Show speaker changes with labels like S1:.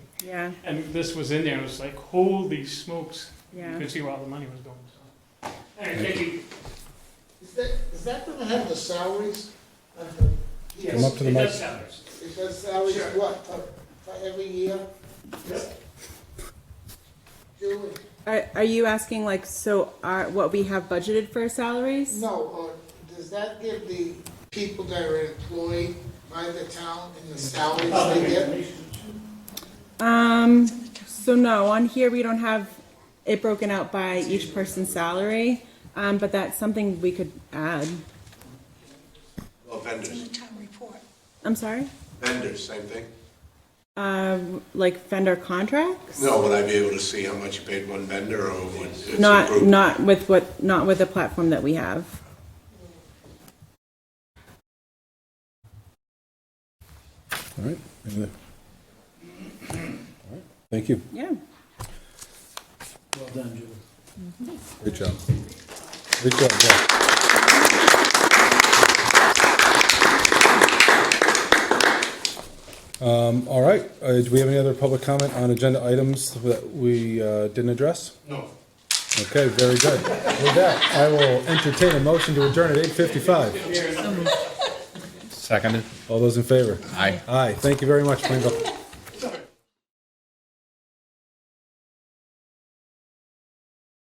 S1: yeah,
S2: And this was in there, it was like, holy smokes. You
S1: yeah.
S2: could see where all the money was going, so. Anyway, thank you.
S3: Is that, is that gonna have the salaries? of the-
S2: Yes,
S4: up to the
S2: it
S4: mic.
S2: does have those.
S3: Is that salaries,
S2: Sure.
S3: what, for, for every year?
S2: Yep.
S3: Julie,
S1: Are, are you asking like, so are, what we have budgeted for salaries?
S3: no, uh, does that give the people that are employed by the town and the salaries they get?
S1: Um, so no, on here we don't have it broken out by each person's salary, um, but that's something we could add.
S5: Well, vendors,
S6: town report.
S1: I'm sorry?
S5: vendors, same thing?
S1: Um, like vendor contracts?
S5: No, would I be able to see how much you paid one vendor or would it's a
S1: Not,
S5: group?
S1: not with what, not with the platform that we have.
S4: All right. All right. Thank you.
S1: Yeah.
S4: Great job. Great job, Jeff. Um, all right, uh, do we have any other public comment on agenda items that we, uh, didn't address?
S2: No.
S4: Okay, very good. With that, I will entertain a motion to adjourn at eight fifty-five.
S7: Seconded.
S4: All those in favor?
S7: Aye.
S4: Aye, thank you very much, Plainville.